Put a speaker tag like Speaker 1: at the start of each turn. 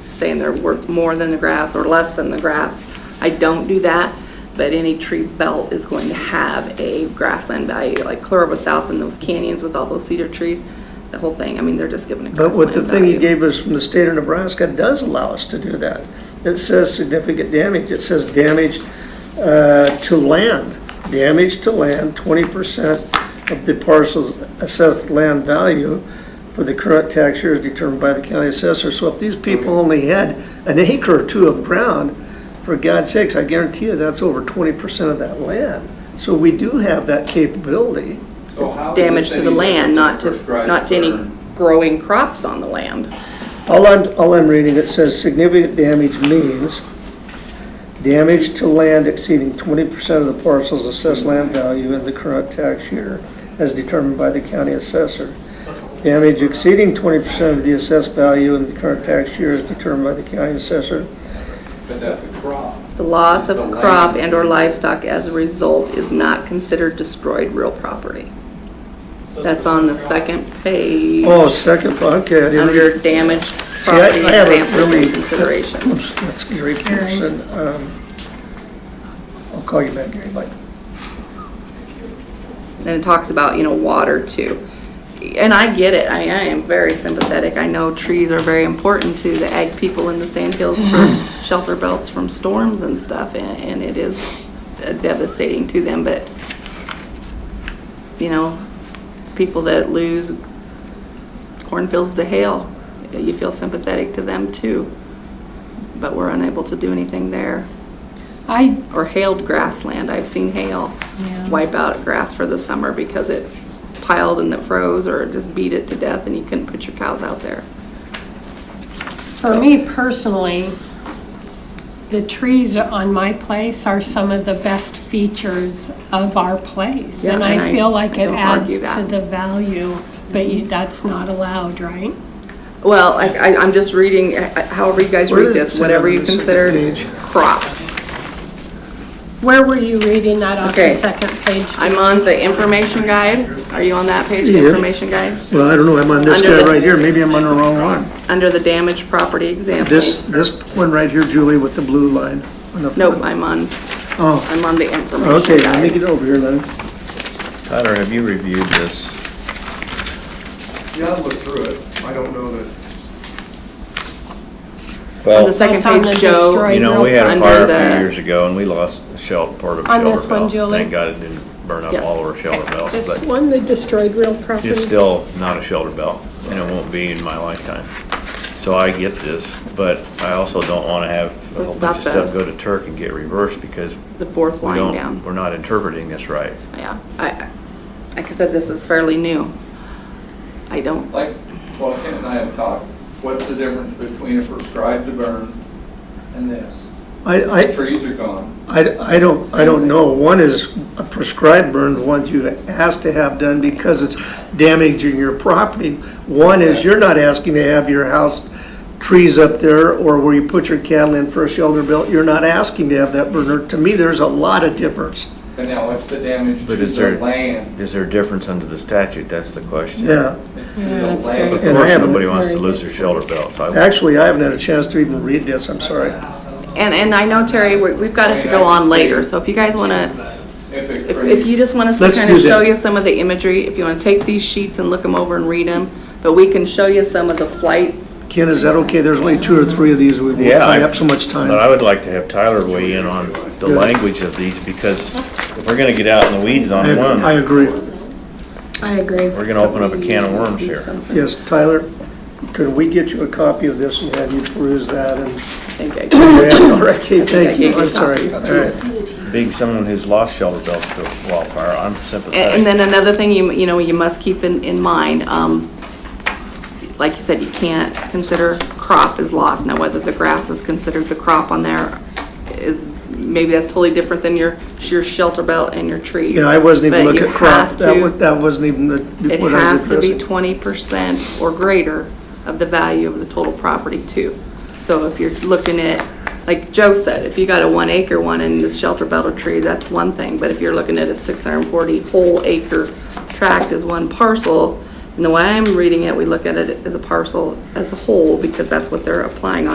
Speaker 1: saying they're worth more than the grass or less than the grass. I don't do that, but any tree belt is going to have a grassland value, like Clarova South and those canyons with all those cedar trees, the whole thing. I mean, they're just giving a
Speaker 2: But what
Speaker 1: grassland
Speaker 2: the thing you
Speaker 1: value.
Speaker 2: gave us from the state of Nebraska does allow us to do that. It says significant damage, it says damage uh, to land, damage to land, twenty percent of the parcel's assessed land value for the current tax year is determined by the county assessor. So if these people only had an acre or two of ground, for God's sakes, I guarantee you, that's over twenty percent of that land. So we do have that capability.
Speaker 3: So
Speaker 1: It's
Speaker 3: how does
Speaker 1: damage to the
Speaker 3: any
Speaker 1: land, not to,
Speaker 3: prescribed
Speaker 1: not to any
Speaker 3: burn-
Speaker 1: growing crops on the land.
Speaker 2: All I'm, all I'm reading, it says significant damage means damage to land exceeding twenty percent of the parcel's assessed land value in the current tax year as determined by the county assessor. Damage exceeding twenty percent of the assessed value in the current tax year as determined by the county assessor.
Speaker 3: But that's a crop.
Speaker 1: The loss of
Speaker 3: The land.
Speaker 1: crop and/or livestock as a result is not considered destroyed real property. That's on the second page,
Speaker 2: Oh, second, okay, I didn't read.
Speaker 1: under damaged
Speaker 2: See, I-
Speaker 1: property
Speaker 2: I haven't
Speaker 1: examples
Speaker 2: really-
Speaker 1: and considerations.
Speaker 2: Oops, That's Gary Peterson. Um, I'll call you back, Gary, bye.
Speaker 1: And it talks about, you know, water too. And I get it, I, I am very sympathetic, I know trees are very important to the ag people in the sand hills for shelter belts from storms and stuff, and, and it is devastating to them, but, you know, people that lose cornfields to hail, you feel sympathetic to them too, but we're unable to do anything there
Speaker 4: I,
Speaker 1: or hailed grassland. I've seen hail
Speaker 4: Yeah.
Speaker 1: wipe out grass for the summer because it piled and it froze or it just beat it to death and you couldn't put your cows out there.
Speaker 4: for me personally, the trees on my place are some of the best features of our place.
Speaker 1: Yeah,
Speaker 4: And
Speaker 1: and
Speaker 4: I
Speaker 1: I-
Speaker 4: feel like
Speaker 1: I
Speaker 4: it
Speaker 1: don't argue
Speaker 4: adds to
Speaker 1: that.
Speaker 4: the value, but you, that's not allowed, right?
Speaker 1: Well, I, I, I'm just reading, uh, however you guys
Speaker 2: Where
Speaker 1: read
Speaker 2: does it
Speaker 1: this,
Speaker 2: say
Speaker 1: whatever
Speaker 2: on
Speaker 1: you
Speaker 2: the second
Speaker 1: consider
Speaker 2: page?
Speaker 1: crop.
Speaker 4: Where were you reading that off the
Speaker 1: Okay.
Speaker 4: second page?
Speaker 1: I'm on the information guide. Are you on that page, the
Speaker 2: Yeah.
Speaker 1: information guide?
Speaker 2: Well, I don't know, I'm on this
Speaker 1: Under
Speaker 2: guy
Speaker 1: the-
Speaker 2: right here, maybe I'm on the wrong one.
Speaker 1: Under the damaged property
Speaker 2: This,
Speaker 1: examples.
Speaker 2: this one right here, Julie, with the blue line on the
Speaker 1: Nope,
Speaker 2: front?
Speaker 1: I'm on,
Speaker 2: Oh,
Speaker 1: I'm on the information
Speaker 2: okay, let me
Speaker 1: guide.
Speaker 2: get over here then.
Speaker 5: Tyler, have you reviewed this?
Speaker 6: Yeah, I'll look through it. I don't know that,
Speaker 1: On the
Speaker 5: Well,
Speaker 1: second
Speaker 4: That's on
Speaker 1: page,
Speaker 4: the
Speaker 1: Joe,
Speaker 4: destroyed-
Speaker 5: you know, we had a
Speaker 1: Under
Speaker 5: fire a
Speaker 1: the-
Speaker 5: few years ago and we lost a shell, part of a
Speaker 4: On this
Speaker 5: shelter
Speaker 4: one,
Speaker 5: belt.
Speaker 4: Julie?
Speaker 5: Thank God it didn't burn up
Speaker 1: Yes.
Speaker 5: all of our shelter belts,
Speaker 4: This
Speaker 5: but
Speaker 4: one, they destroyed real property.
Speaker 5: it's still not a shelter belt and it won't be in my lifetime. So I get this, but I also don't want to have
Speaker 1: So
Speaker 5: a
Speaker 1: it's
Speaker 5: whole
Speaker 1: about
Speaker 5: bunch of
Speaker 1: the-
Speaker 5: stuff go to Turk and get reversed because
Speaker 1: the fourth
Speaker 5: we
Speaker 1: line
Speaker 5: don't,
Speaker 1: down.
Speaker 5: we're not interpreting this right.
Speaker 1: Yeah, I, I- like I said, this is fairly new. I don't
Speaker 3: Like, well, Kent and I have talked, what's the difference between a prescribed to burn and this?
Speaker 2: I, I,
Speaker 3: Trees are gone.
Speaker 2: I, I don't, I don't know. One is a prescribed burn, one you asked to have done because it's damaging your property. One is you're not asking to have your house, trees up there, or where you put your cattle in for a shelter belt, you're not asking to have that burner. To me, there's a lot of difference.
Speaker 3: And now what's the damage to
Speaker 5: But is
Speaker 3: the
Speaker 5: there,
Speaker 3: land?
Speaker 5: is there a difference under the statute? That's the question.
Speaker 2: Yeah.
Speaker 3: It's to
Speaker 4: Yeah,
Speaker 3: the
Speaker 4: that's
Speaker 3: land.
Speaker 4: great.
Speaker 5: Of
Speaker 2: And I
Speaker 5: course,
Speaker 2: haven't-
Speaker 5: nobody wants to
Speaker 4: Very
Speaker 5: lose their shelter belts. I wouldn't.
Speaker 2: Actually, I haven't had a chance to even read this, I'm sorry.
Speaker 1: And, and I know, Terry, we- we've got it to go on later, so if you guys want to,
Speaker 3: If it
Speaker 1: if,
Speaker 3: creates-
Speaker 1: if you just want us to
Speaker 2: Let's
Speaker 1: kind of
Speaker 2: do that.
Speaker 1: show you some of the imagery, if you want to take these sheets and look them over and read them, but we can show you some of the flight.
Speaker 2: Ken, is that okay? There's only two or three of these, we won't
Speaker 5: Yeah, I-
Speaker 2: tie up so much
Speaker 5: But
Speaker 2: time.
Speaker 5: I would like to have Tyler weigh in on the
Speaker 2: Yeah.
Speaker 5: language of these, because if we're gonna get out in the weeds
Speaker 2: I
Speaker 5: on
Speaker 2: I
Speaker 5: one,
Speaker 2: agree.
Speaker 4: I agree.
Speaker 5: we're gonna open up a can of worms here.
Speaker 1: Something.
Speaker 2: Yes, Tyler, could we get you a copy of this and have you peruse that and?
Speaker 1: I think I can-
Speaker 2: Yeah, all right, okay,
Speaker 1: I
Speaker 2: thank you,
Speaker 1: can't
Speaker 2: I'm
Speaker 1: get
Speaker 2: sorry.
Speaker 1: copies.
Speaker 2: All right.
Speaker 5: Being someone who's lost shelter belts to a wildfire, I'm
Speaker 1: And and
Speaker 5: sympathetic.
Speaker 1: then another thing you, you know, you must keep in, in mind, um, like you said, you can't consider crop as lost. Now, whether the grass is considered the crop on there is, maybe that's totally different than your, your shelter belt and your trees.
Speaker 2: Yeah, I wasn't
Speaker 1: But
Speaker 2: even looking
Speaker 1: you
Speaker 2: at crop,
Speaker 1: have
Speaker 2: that
Speaker 1: to-
Speaker 2: was, that wasn't even the-
Speaker 1: It
Speaker 2: what I was
Speaker 1: has to be
Speaker 2: addressing.
Speaker 1: twenty percent or greater of the value of the total property too. So if you're looking at, like Joe said, if you got a one acre one and the shelter belt of trees, that's one thing. But if you're looking at a six hundred and forty whole acre tract as one parcel, and the way I'm reading it, we look at it as a parcel as a whole because that's what they're applying on.